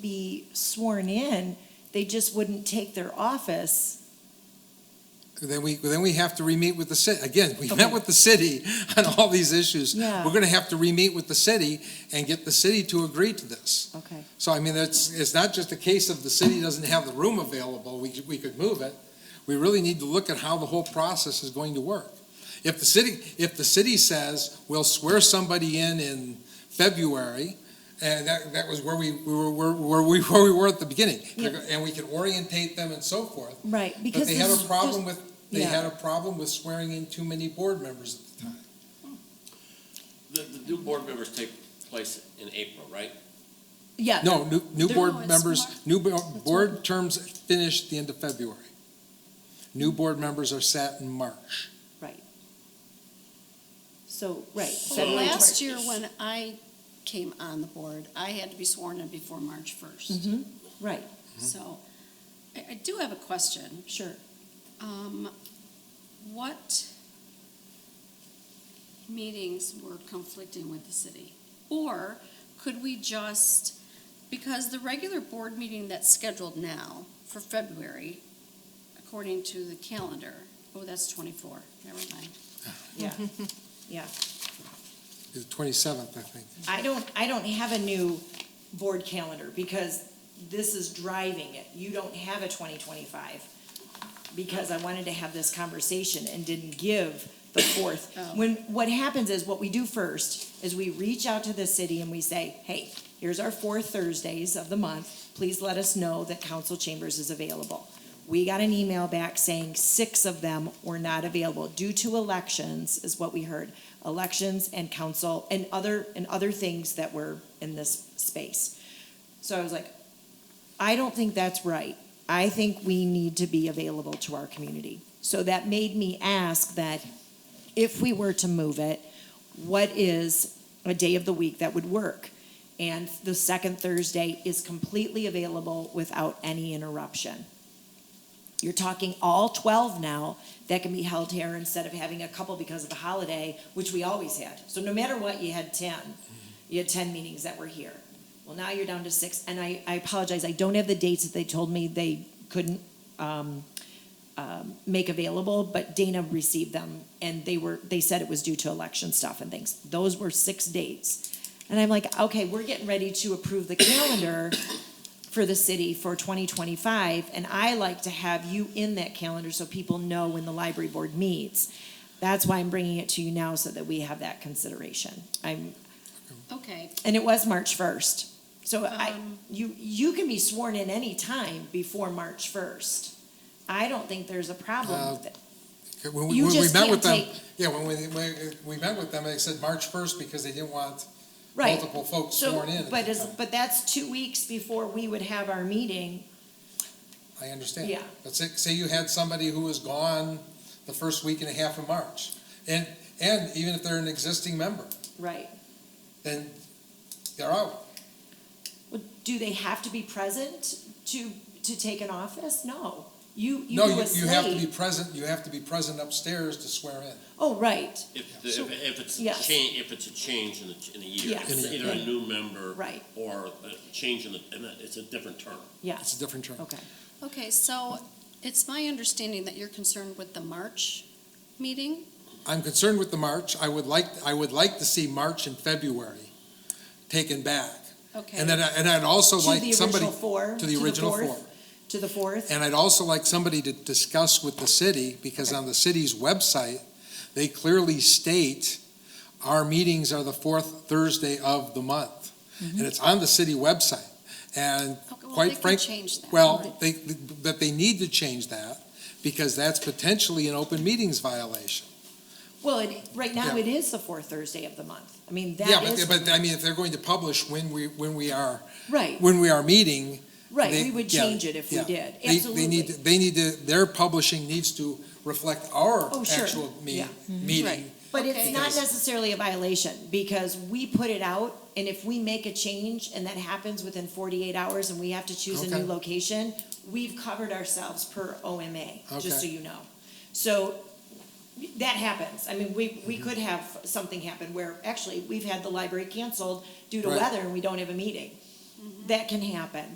be sworn in, they just wouldn't take their office. Then we, then we have to re-meet with the city. Again, we Okay. met with the city on all these issues. Yeah. We're gonna have to re-meet with the city and get the city to agree to this. Okay. So I mean, it's, it's not just a case of the city doesn't have the room available, we, could- we could move it. We really need to look at how the whole process is going to work. If the city, if the city says, we'll swear somebody in in February, and that, that was where we, we were, where, where we, where we were at the beginning. Yeah. And we can orientate them and so forth. Right, because. But they had this- a problem with, they yeah. had a problem with swearing in too many board members at the time. The, the new board members take place in April, right? Yeah. No, new, new Uh, They're- board No, it's members, Mar- new bo- board terms finish at the end of February. New board members are sat in March. So, right. Well, February last twenty- year, when I came on the board, I had to be sworn in before March first. Mhm, right, So, I, I do have a question. sure. Um, what meetings were conflicting with the city? Or could we just, because the regular board meeting that's scheduled now for February, according to the calendar, oh, that's twenty-four, never mind. Yeah. The twenty-seventh, I think. I don't, I don't have a new board calendar because this is driving it. You don't have a twenty twenty-five. Because I wanted to have this conversation and didn't give the fourth. Oh. When, what happens is, what we do first is we reach out to the city and we say, hey, here's our four Thursdays of the month. Please let us know that council chambers is available. We got an email back saying six of them were not available due to elections, is what we heard. Elections and council and other, and other things that were in this space. So I was like, I don't think that's right. I think we need to be available to our community. So that made me ask that if we were to move it, what is a day of the week that would work? And the second Thursday is completely available without any interruption. You're talking all 12 now that can be held here instead of having a couple because of the holiday, which we always had. So no matter what, you had 10. You had 10 meetings that were here. Well, now you're down to six, and I, I apologize, I don't have the dates that they told me they couldn't um, um, make available, but Dana received them, and they were, they said it was due to election stuff and things. Those were six dates. And I'm like, okay, we're getting ready to approve the calendar for the city for 2025, and I like to have you in that calendar so people know when the library board meets. That's why I'm bringing it to you now, so that we have that consideration. I'm, Okay, and it was March first. So I, Um. you, you can be sworn in any time before March first. I don't think there's a problem Uh, with it. When we, You when we just met with them, can't yeah, when we, when we met with them, they said March first because they didn't want Right. multiple folks So, sworn in. at but the is, time. but that's two weeks before we would have our meeting. I understand. Yeah. But say, say you had somebody who was gone the first week and a half of March, and, and even if they're an existing member, Right. then they're out. Well, Do they have to be present to, to take an office? No. You, you No, do you, a you have to be slate. present, you have to be present upstairs to swear in. Oh, right, If, the- if if it's a Yes. change, if it's a change in the, in a year, Yes. it's either a new member. Right. Or a change in the, in the- it's a different term. It's a yes, different term. okay. okay, so it's my understanding that you're concerned with the March meeting? I'm concerned with the March. I would like, I would like to see March and February taken back. Okay. And then, I- and I'd also To like the somebody, original four, to the original fourth, four. To the fourth, And I'd also like somebody to discuss with the city, because on the city's website, they clearly state our meetings are the fourth Thursday of the month. Mm-hmm. And it's on the city website. And Okay, well, Quite they can frank- change that. Well, they, but they need to change that because that's potentially an open meetings violation. well, it, right now Yeah. it is the fourth Thursday of the month. I mean, Yeah, that but, is, but I mean, if they're going to publish when we, when we are, right. when we are meeting. Right, they- we would yeah, change it if we yeah. did, They- They need, absolutely. to- they need to, their publishing needs to reflect our Oh, sure. actual me- Yeah. meeting. Right. But it's Okay. not Because- necessarily a violation, because we put it out, and if we make a change and that happens within forty-eight hours and we have to choose a new Okay. location, we've covered ourselves per OMA, just so Okay. you know. So, that happens, I mean, we, Mm-hmm. we could have something happen where, actually, we've had the library canceled due to Right. Mm-hmm. weather and we don't have a meeting. That can happen,